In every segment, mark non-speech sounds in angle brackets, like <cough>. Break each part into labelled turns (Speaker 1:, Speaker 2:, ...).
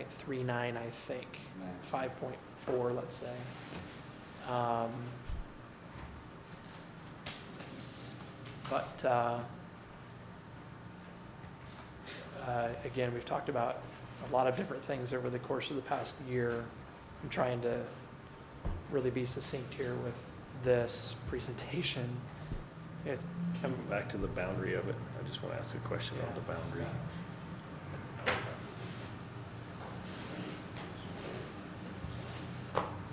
Speaker 1: 5.39, I think,
Speaker 2: Max.
Speaker 1: 5.4, let's say. Um, But, uh, uh, again, we've talked about a lot of different things over the course of the past year. I'm trying to really be succinct here with this presentation. It's,
Speaker 3: Coming back to the boundary of it, I just want to ask a question on the boundary.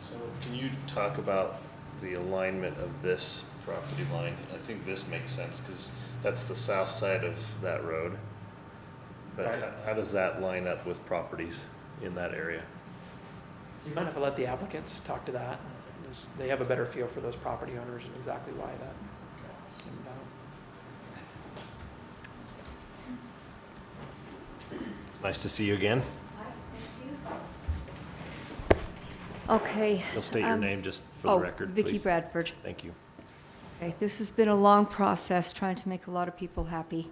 Speaker 3: So can you talk about the alignment of this property line? I think this makes sense because that's the south side of that road. But
Speaker 1: Right.
Speaker 3: how, how does that line up with properties in that area?
Speaker 1: You mind if I let the applicants talk to that? There's- They have a better feel for those property owners and exactly why that came about.
Speaker 3: It's nice to see you again.
Speaker 4: Okay.
Speaker 3: You'll state your
Speaker 4: um,
Speaker 3: name just for the
Speaker 4: Oh,
Speaker 3: record,
Speaker 4: Vicki
Speaker 3: please.
Speaker 4: Bradford.
Speaker 3: Thank you.
Speaker 4: Okay, this has been a long process, trying to make a lot of people happy.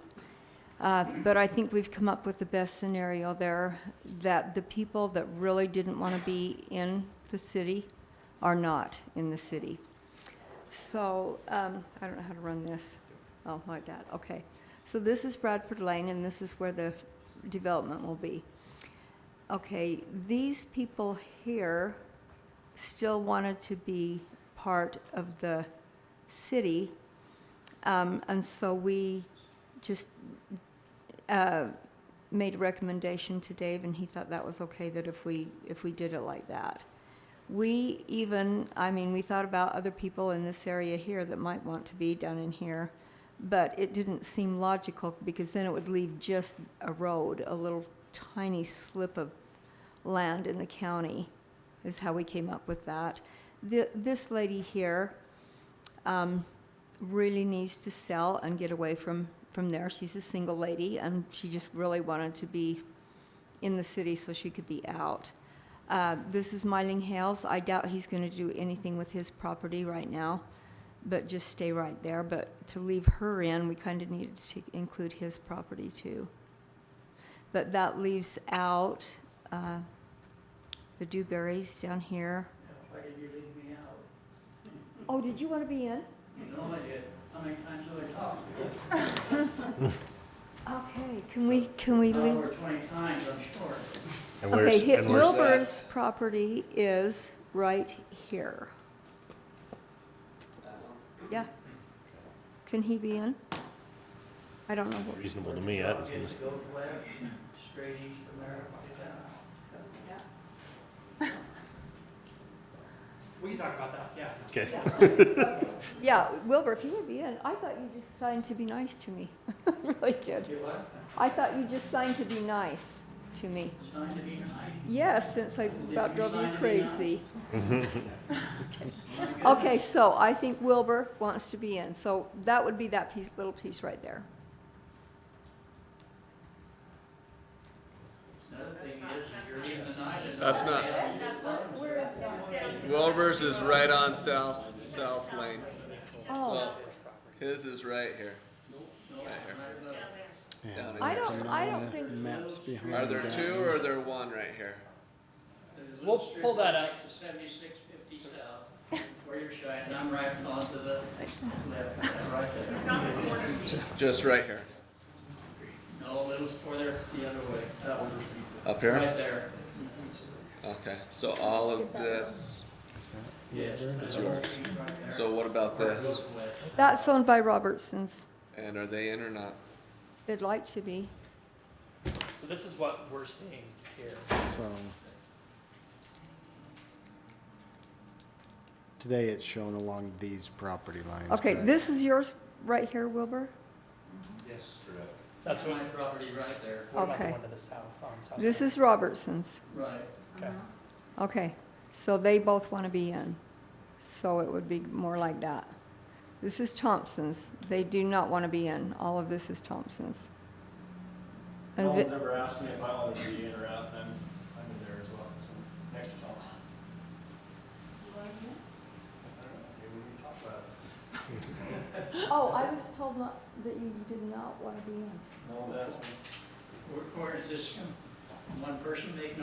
Speaker 4: Uh, But I think we've come up with the best scenario there, that the people that really didn't want to be in the city are not in the city. So, um, I don't know how to run this. Oh, like that, okay. So this is Bradford Lane, and this is where the development will be. Okay, these people here still wanted to be part of the city. Um, and so we just uh, made a recommendation to Dave, and he thought that was okay that if we if we did it like that. We even, I mean, we thought about other people in this area here that might want to be down in here, but it didn't seem logical because then it would leave just a road, a little tiny slip of land in the county, is how we came up with that. The, this lady here, um, really needs to sell and get away from, from there. She's a single lady, and she just really wanted to be in the city so she could be out. Uh, this is Myling Hales. I doubt he's going to do anything with his property right now, but just stay right there. But to leave her in, we kind of needed to include his property too. But that leaves out uh, the Dewberries down here.
Speaker 5: Why did you leave me out?
Speaker 4: Oh, did you want to be in?
Speaker 5: You know I did. How many times have I talked to you?
Speaker 4: Okay, can we, can we leave?
Speaker 5: Over twenty times, I'm sure.
Speaker 3: And where's-
Speaker 4: Okay, his
Speaker 3: and where's-
Speaker 4: Wilbur's property is right here. Yeah. Can he be in? I don't know. what-
Speaker 3: Reasonable to me, I was gonna
Speaker 5: Just go west, straight east from there, up to town.
Speaker 1: We can talk about that, yeah.
Speaker 3: Okay.
Speaker 4: <laughs> Yeah, Wilbur, if you would be in, I thought you just signed to be nice to me. <laughs> I really did.
Speaker 5: You what?
Speaker 4: I thought you just signed to be nice to me.
Speaker 5: Signed to be nine.
Speaker 4: Yes, since I about drove you
Speaker 5: sign to be nice?
Speaker 4: crazy. <laughs> Okay, so I think Wilbur wants to be in, so that would be that piece, little piece right there.
Speaker 5: Another thing is, you're leaving the nine. and-
Speaker 6: That's not. Wilbur's is right on South South Lane.
Speaker 4: Oh.
Speaker 6: His is right here. Right here. Down in
Speaker 4: I
Speaker 6: here.
Speaker 4: don't, I don't think,
Speaker 6: Are there two or are there one right here?
Speaker 5: There's a
Speaker 1: We'll
Speaker 5: little
Speaker 1: pull that
Speaker 5: strip of Seventy-six fifty south, where you're shining, I'm right onto the left, that's right there.
Speaker 6: Just right here.
Speaker 5: No, it was for there, the other way, that one.
Speaker 6: Up here?
Speaker 5: Right there,
Speaker 6: Okay, so all of this
Speaker 5: yes.
Speaker 6: is yours.
Speaker 5: Right there.
Speaker 6: So what about this?
Speaker 4: that's owned by Robertson's.
Speaker 6: And are they in or not?
Speaker 4: They'd like to be.
Speaker 1: So this is what we're seeing here.
Speaker 7: So today it's shown along these property lines.
Speaker 4: Okay,
Speaker 7: correct?
Speaker 4: this is yours right here, Wilbur?
Speaker 5: Yes.
Speaker 1: That's
Speaker 5: That's
Speaker 1: what,
Speaker 5: my property right there,
Speaker 1: what about the
Speaker 4: Okay.
Speaker 1: one to the south on South?
Speaker 4: This
Speaker 1: Main?
Speaker 4: is Robertson's.
Speaker 5: right.
Speaker 1: Okay.
Speaker 4: Okay, so they both want to be in. So it would be more like that. This is Thompson's. They do not want to be in. All of this is Thompson's. And
Speaker 8: No
Speaker 4: Vi-
Speaker 8: one's ever asked me if I wanted to be in or out, and I'm, I'm in there as well, so, next to Thompson. I don't know, maybe we can talk about it.
Speaker 4: <gasps> Oh, I was told not, that you did not want to be in.
Speaker 8: No one's asked me.
Speaker 5: Or, or is this one person making